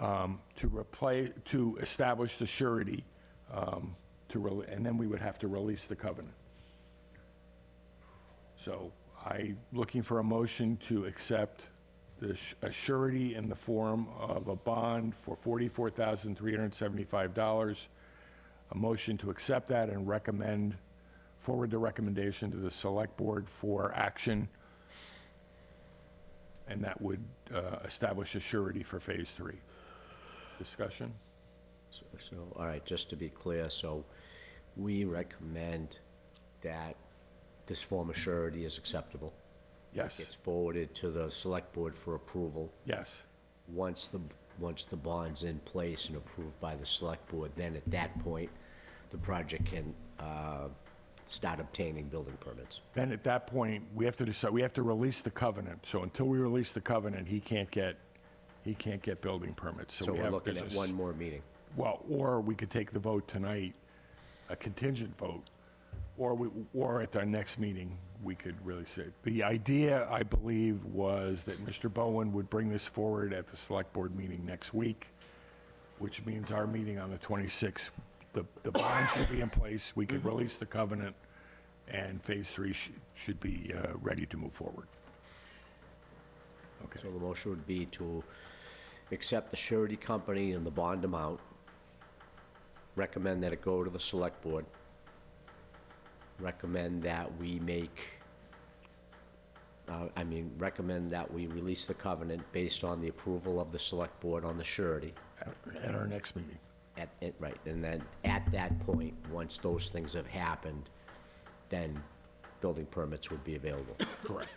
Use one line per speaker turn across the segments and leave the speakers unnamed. um, to replace, to establish the surety, um, to, rel- and then we would have to release the covenant. So I, looking for a motion to accept the s- a surety in the form of a bond for $44,375. A motion to accept that and recommend, forward the recommendation to the Select Board for action. And that would uh, establish a surety for Phase 3. Discussion?
So, so, all right, just to be clear, so we recommend that this form of surety is acceptable. It's
Yes,
forwarded to the select board for approval.
yes,
Once the, once the bond's in place and approved by the select board, then at that point, the project can, uh, start obtaining building permits.
Then at that point, we have to decide, we have to release the covenant. So until we release the covenant, he can't get, he can't get building permits.
So
we
we're
have-
looking
there's
at
a s-
one more meeting.
Well, or we could take the vote tonight, a contingent vote, or we, or at our next meeting, we could really say. The idea, I believe, was that Mr. Bowen would bring this forward at the select board meeting next week, which means our meeting on the 26th, the, the bond should be in place, we could release the covenant, and phase three sh- should be uh, ready to move forward. Okay,
So the motion would be to accept the surety company and the bond amount, recommend that it go to the select board, recommend that we make, uh, I mean, recommend that we release the covenant based on the approval of the select board on the surety.
At- at our next meeting.
At, at- right, and then at that point, once those things have happened, then building permits would be available.
Correct.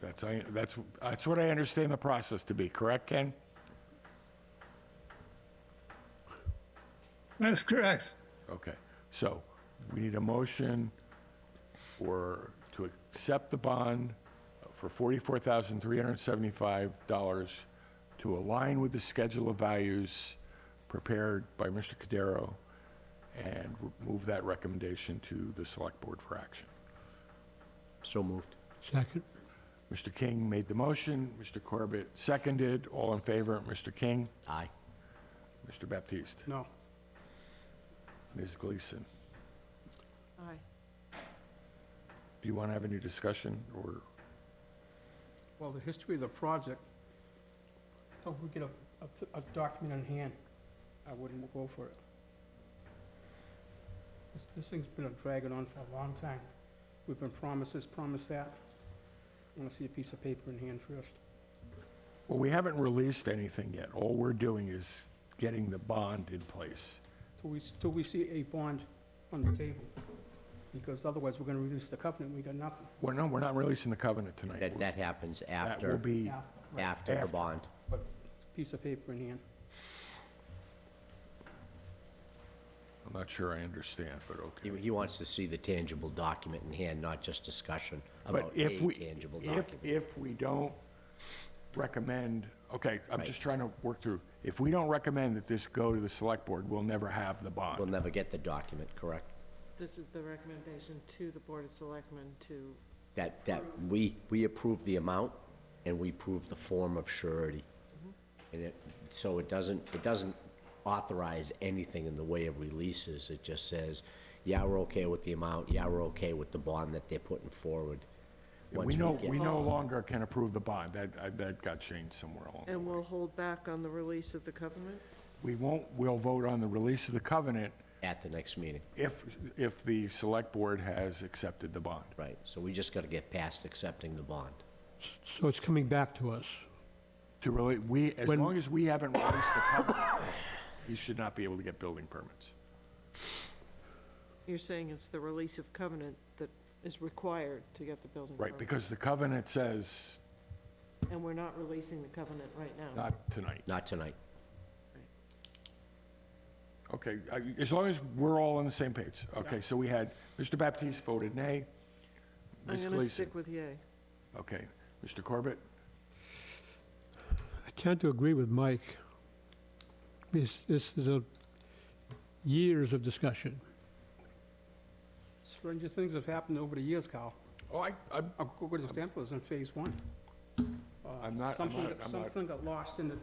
That's, I, that's, that's what I understand the process to be, correct, Ken?
That's correct.
Okay, so we need a motion or to accept the bond for forty-four thousand three hundred and seventy-five dollars to align with the schedule of values prepared by Mr. Cudero and move that recommendation to the select board for action.
So moved.
Second?
Mr. King made the motion, Mr. Corbett seconded, all in favor, Mr. King,
Aye.
Mr. Baptiste,
No.
Ms. Gleason.
Aye.
Do you want to have any discussion, or,
Well, the history of the project, until we get a, a- a document in hand, I wouldn't go for it. This, this thing's been dragging on for a long time. We've been promised this, promised that. I wanna see a piece of paper in hand first.
well, we haven't released anything yet. All we're doing is getting the bond in place.
Till we, s- till we see a bond on the table. Because otherwise, we're gonna release the covenant, we got nothing.
Well, no, we're not releasing the covenant tonight.
That, that happens
That will
after,
be,
Yeah, right.
after the
After.
bond.
But piece of paper in hand.
I'm not sure I understand, but
He,
okay.
he wants to see the tangible document in hand, not just discussion
But
about a
if we,
tangible
if,
document.
if we don't recommend, okay, I'm
Right.
just trying to work through. If we don't recommend that this go to the select board, we'll never have the
We'll
bond.
never get the document, correct?
This is the recommendation to the Board of Selectmen to,
That, that, we, we approve the amount and we approve the form of surety.
Mm-hmm.
And it, so it doesn't, it doesn't authorize anything in the way of releases. It just says, yeah, we're okay with the amount, yeah, we're okay with the bond that they're putting forward.
We
Once
no,
get-
we no longer can approve the bond. That, I- that got changed somewhere along.
and we'll hold back on the release of the covenant?
We won't, we'll vote on the release of the covenant
At the next meeting,
If, if the select board has accepted the bond.
right. So we just gotta get past accepting the bond.
So it's coming back to us.
To really, we, as
When-
long as we haven't released the covenant, he should not be able to get building permits.
You're saying it's the release of covenant that is required to get the building permit?
Right, because the covenant says
And we're not releasing the covenant right now?
not tonight.
Not tonight.
Okay, I- as long as we're all on the same page. Okay, so we had, Mr. Baptiste voted nay.
I'm
Ms.
going to
Gleason.
stick with yay.
Okay, Mr. Corbett?
I tend to agree with Mike. This, this is a years of discussion.
Stranger things have happened over the years, Carl.
Oh, I, I'm,
I'll go with the example, it was in phase one.
I'm not, I'm
Something,
not,
got-
I'm not,
something got lost in the,